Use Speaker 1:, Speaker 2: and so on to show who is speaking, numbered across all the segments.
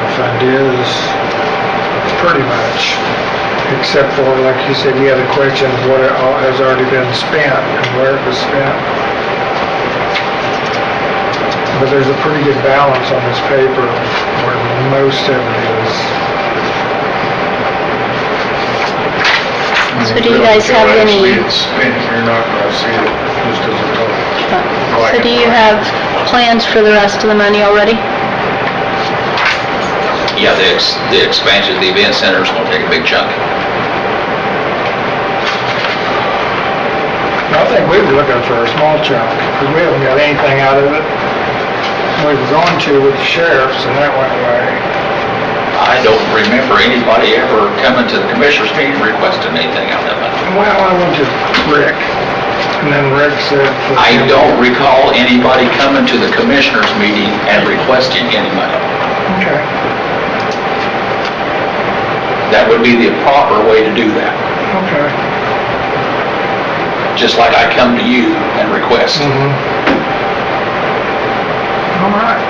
Speaker 1: is pretty much, except for, like you said, the other question, what it all has already been spent and where it was spent. But there's a pretty good balance on this paper where most of it is.
Speaker 2: So do you guys have
Speaker 1: Actually,
Speaker 2: any,
Speaker 1: it's spent, you're not gonna see it just as a total.
Speaker 2: so do you have plans for the rest of the money already?
Speaker 3: Yeah, the, ex- the expansion of the event center is gonna take a big chunk.
Speaker 1: I think we were looking for a small chunk, because we haven't got anything out of it. We were going to with the sheriffs, and that went away.
Speaker 3: I don't remember anybody ever coming to the commissioners meeting requesting anything out of it.
Speaker 1: Well, I went to Rick, and then Rick said... for-
Speaker 3: I don't recall anybody coming to the commissioners meeting and requesting any money.
Speaker 1: Okay.
Speaker 3: That would be the proper way to do that,
Speaker 1: Okay.
Speaker 3: just like I come to you and request.
Speaker 1: Mhm. All right.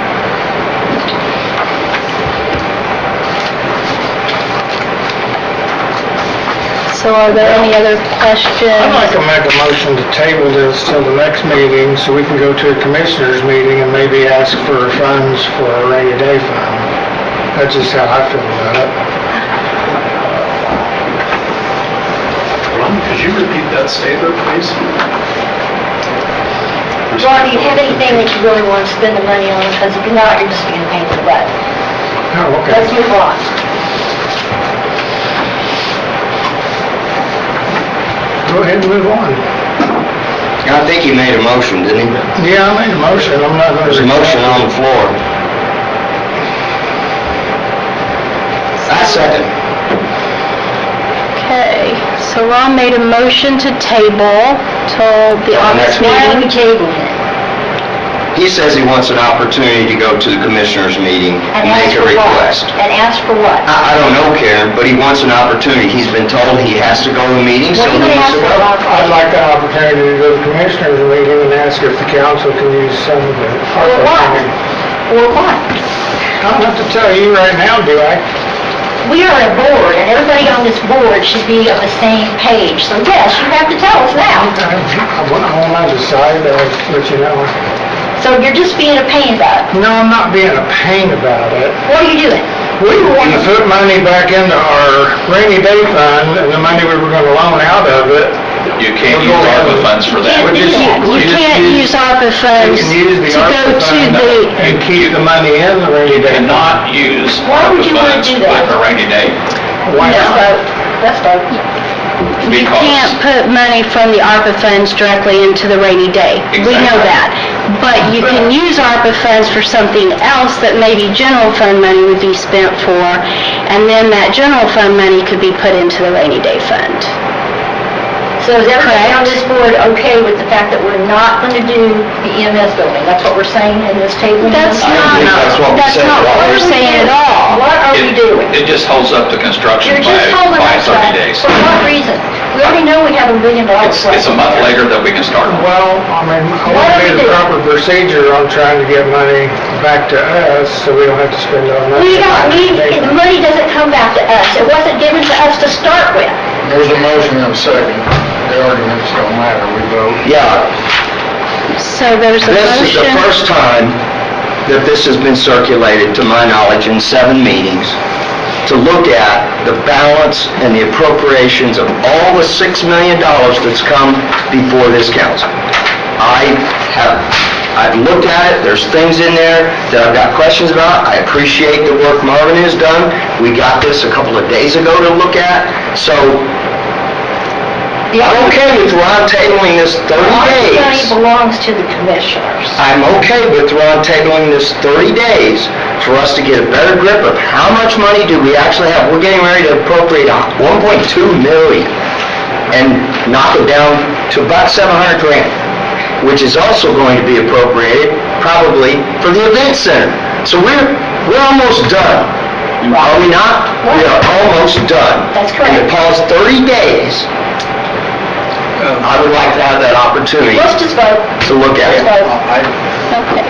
Speaker 2: So are there any other questions?
Speaker 1: I'd like to make a motion to table this till the next meeting, so we can go to a commissioners' meeting and maybe ask for funds for a rainy day fund. That's just how I feel about it.
Speaker 4: Ron, could you repeat that statement, please?
Speaker 5: John, do you have anything that you really want to spend the money on? Because if not, you're just going to pay for that.
Speaker 1: Oh,
Speaker 5: Let's
Speaker 1: okay.
Speaker 5: move on.
Speaker 1: Go ahead and move on.
Speaker 6: I think he made a motion, didn't he?
Speaker 1: Yeah, I made a motion, I'm not gonna...
Speaker 6: There's a motion on the floor. I second.
Speaker 2: Okay, so Ron made a motion to table till the August
Speaker 6: next
Speaker 5: Why are we
Speaker 2: meeting.
Speaker 5: tabling it?
Speaker 6: He says he wants an opportunity to go to the commissioners' meeting and
Speaker 5: And
Speaker 6: make
Speaker 5: ask
Speaker 6: a
Speaker 5: for what?
Speaker 6: request.
Speaker 5: And ask for what?
Speaker 6: I, I don't know, Karen, but he wants an opportunity. He's been told he has to go to a meeting, so
Speaker 5: What are
Speaker 6: he
Speaker 5: you going to
Speaker 6: needs
Speaker 5: ask
Speaker 6: to go.
Speaker 5: for, Bob?
Speaker 1: I'd like the opportunity to go to commissioners' meeting and ask if the council can use some of the...
Speaker 5: For what? For what?
Speaker 1: I don't have to tell you right now, do I?
Speaker 5: We are a board, and everybody on this board should be on the same page. So yes, you have to tell us now.
Speaker 1: I- When I decide, I'll let you know.
Speaker 5: So you're just being a pain about it.
Speaker 1: No, I'm not being a pain about it.
Speaker 5: What are you doing?
Speaker 1: We were wanting to put money back into our rainy day fund, and the money we were gonna loan out of it,
Speaker 3: You can't use ARPA funds for that.
Speaker 5: You
Speaker 1: We're
Speaker 5: can't do
Speaker 1: just-
Speaker 5: that.
Speaker 2: You
Speaker 1: We
Speaker 2: can't use
Speaker 1: just use-
Speaker 2: ARPA
Speaker 1: we
Speaker 2: funds
Speaker 1: can
Speaker 2: to
Speaker 1: use the ARPA
Speaker 2: go to
Speaker 1: fund
Speaker 2: the,
Speaker 1: and keep the money in the rainy day. fund.
Speaker 3: Cannot use
Speaker 5: Why would
Speaker 3: ARPA
Speaker 5: you wanna
Speaker 3: funds
Speaker 5: do
Speaker 3: for
Speaker 5: that?
Speaker 3: a rainy day
Speaker 1: Why not?
Speaker 5: Let's vote.
Speaker 2: you
Speaker 3: because-
Speaker 2: can't put money from the ARPA funds directly into the rainy day. We know
Speaker 3: Exactly.
Speaker 2: that. But you can use ARPA funds for something else that maybe general fund money would be spent for, and then that general fund money could be put into the rainy day fund.
Speaker 5: So is everybody on
Speaker 2: Correct.
Speaker 5: this board okay with the fact that we're not going to do the EMS building? That's what we're saying in this table?
Speaker 2: That's
Speaker 5: What
Speaker 2: not,
Speaker 6: think that's what we
Speaker 2: that's
Speaker 6: said,
Speaker 2: not
Speaker 6: right?
Speaker 2: what we're saying at all.
Speaker 5: are we
Speaker 3: It-
Speaker 5: doing?
Speaker 3: It just holds up the construction
Speaker 5: You're
Speaker 3: by,
Speaker 5: just holding
Speaker 3: by
Speaker 5: us up.
Speaker 3: 30 days.
Speaker 5: For what reason? We already know we have a million dollars
Speaker 3: It's,
Speaker 5: left.
Speaker 3: it's a month later that we can start.
Speaker 1: Well, I mean, I
Speaker 5: Why
Speaker 1: want
Speaker 5: don't
Speaker 1: to do
Speaker 5: we
Speaker 1: the
Speaker 5: do it?
Speaker 1: proper procedure on trying to get money back to us, so we don't have to spend our money.
Speaker 5: We don't, we,
Speaker 1: Rainy day
Speaker 5: the
Speaker 1: fund.
Speaker 5: money doesn't come back to us. It wasn't given to us to start with.
Speaker 7: There's a motion and a second. The arguments don't matter, we vote.
Speaker 6: Yeah,
Speaker 2: So there's a
Speaker 6: This is the
Speaker 2: motion.
Speaker 6: first time that this has been circulated, to my knowledge, in seven meetings, to look at the balance and the appropriations of all the $6 million that's come before this council. I have, I've looked at it, there's things in there that I've got questions about. I appreciate the work Marvin has done. We got this a couple of days ago to look at, so I'm okay with Ron tabling this 30
Speaker 5: The
Speaker 6: days.
Speaker 5: money belongs to the commissioners.
Speaker 6: I'm okay with Ron tabling this 30 days for us to get a better grip of how much money do we actually have. We're getting ready to appropriate a 1.2 million and knock it down to about 700 grand, which is also going to be appropriated probably for the event center. So we're, we're almost done. Are we not? We are almost done.
Speaker 5: That's correct.
Speaker 6: And it calls 30 days. I would like to have that opportunity
Speaker 5: Let's just vote.
Speaker 6: to look at
Speaker 5: Let's
Speaker 6: it.
Speaker 5: vote.
Speaker 2: Okay,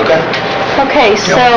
Speaker 6: Okay?
Speaker 2: okay, so